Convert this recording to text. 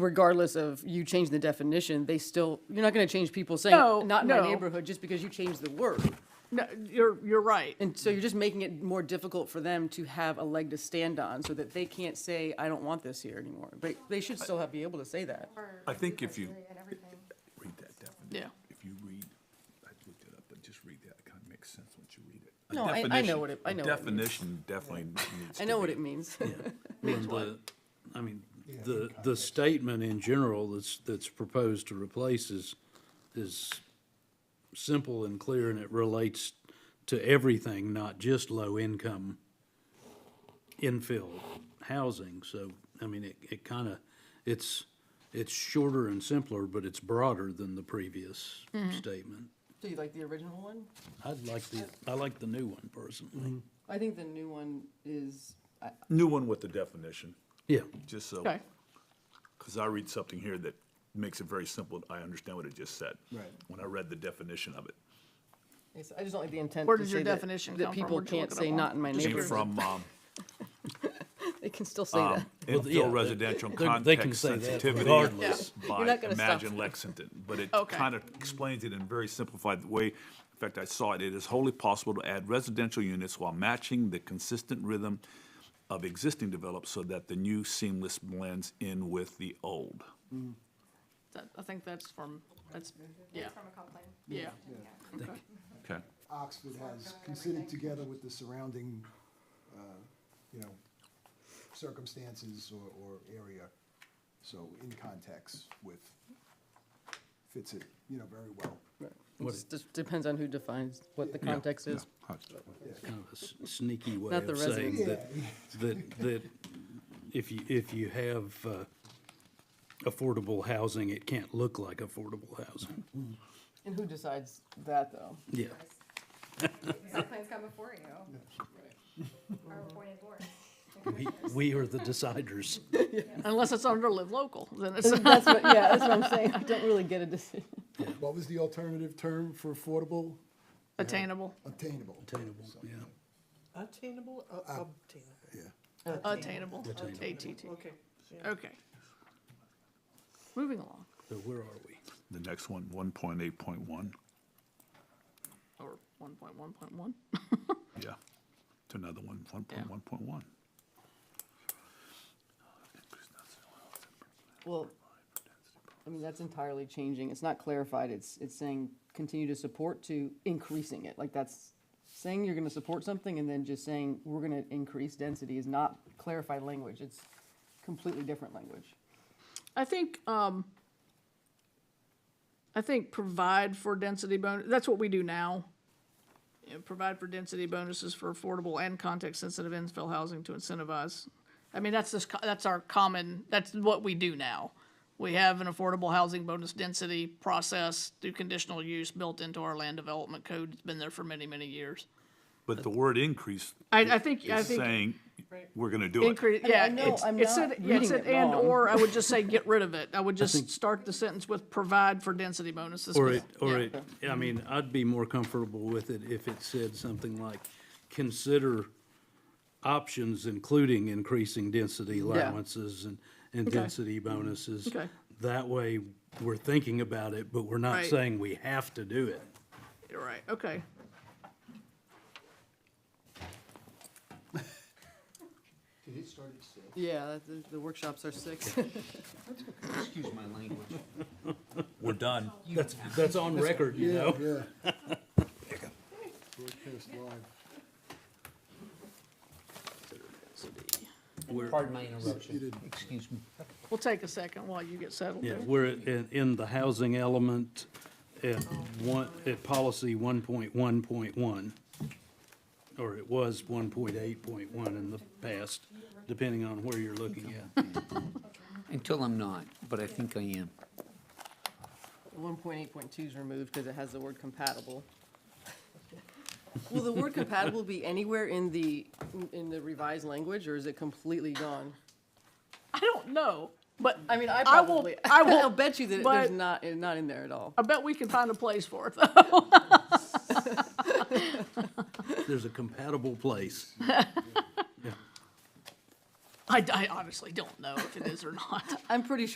regardless of you change the definition, they still, you're not gonna change people saying, No, not in my no. neighborhood, just because you changed the word. No, you're, you're right. And so you're just making it more difficult for them to have a leg to stand on, so that they can't say, I don't want this here anymore. But they should still have, be able to say that. I think if you and everything. read that definition, Yeah. if you read, I looked it up, but just read that, it kind of makes sense once you read it. A No, I- I know definition- what it- I a know what it means. Definition definitely needs I to know what be- it means. And the- I mean, the, the statement in general that's, that's proposed to replace is, is simple and clear, and it relates to everything, not just low-income infill housing. So, I mean, it, it kind of, it's, it's shorter and simpler, but it's broader than the previous statement. Do you like the original one? I'd like the, I like the new one personally. I think the new one is, I, New one with the definition, Yeah, just so, Okay. because I read something here that makes it very simple, I understand what it just said. Right. When I read the definition of it. I just don't like the intent Where to does your say that- definition that come from? people Where'd you look can't it say up on? not in my Came neighborhood. from, um, They can still say um, that. yeah, infill that- residential they're- they can context say that sensitivity regardless. You're by not gonna stop Imagine them. Lexington, but it Okay. kind of explains it in a very simplified way. In fact, I saw it, it is wholly possible to add residential units while matching the consistent rhythm of existing developed so that the new seamless blends in with the old. That, I think that's from, that's, yeah, From a complaint. yeah. Okay. Oxford has considered together with the surrounding, uh, you know, circumstances or, or area. So in context with, fits it, you know, very well. It just- just depends on who defines what the context is. kind of a s- sneaky way Not the of saying residents. that, that, that if you, if you have uh, affordable housing, it can't look like affordable housing. And who decides that, though? Yeah, Site plans come before you. Or appointed board. we, we are the deciders. Unless it's under live local, then it's, That's what, yeah, that's what I'm saying. I don't really get a decision. What was the alternative term for affordable? attainable, Obtainable. Attainable, yeah. Attainable, uh, obtainable, Yeah. attainable, ATT. okay. Okay. Moving along, So where are we? The next one, one point eight point one, or one point one point one. yeah. To another one, one point one point one. Well, I mean, that's entirely changing. It's not clarified. It's, it's saying continue to support to increasing it. Like that's saying you're gonna support something and then just saying we're gonna increase density is not clarified language. It's completely different language. I think, um, I think provide for density bonus, that's what we do now. You know, provide for density bonuses for affordable and context-sensitive infill housing to incentivize. I mean, that's this, co- that's our common, that's what we do now. We have an affordable housing bonus density process through conditional use built into our land development code. It's been there for many, many years. But the word increase I, I think, I is think. saying, we're gonna do it. Increase, mean, I yeah, know it's, I'm it said, not yeah, it reading said it and, wrong. or I would just say get rid of it. I would just start the sentence with provide for density bonuses. Or but- it, or yeah. it, I mean, I'd be more comfortable with it if it said something like, consider options including increasing density allowances and, and density bonuses. Okay. That way, we're thinking about it, but we're not Right. saying we have to do it. You're right, okay. Did it start at six? Yeah, the, the workshops are six. Excuse my language. We're done. That's, that's on record, you know? Yeah, yeah. Broadcast live. Pardon my interruption. didn't. Excuse me. We'll take a second while you get settled Yeah, there. we're in, in the housing element at one, at policy one point one point one. Or it was one point eight point one in the past, depending on where you're looking at. Until I'm not, but I think I am. One point eight point two is removed because it has the word compatible. Will the word compatible be anywhere in the, in the revised language, or is it completely gone? I don't know, but I mean, I I will- probably, I will, I'll bet you that it- there's but- not, it's not in there at all. I bet we can find a place for it though. There's a compatible place. I, I honestly don't know if it is or not. I'm pretty sure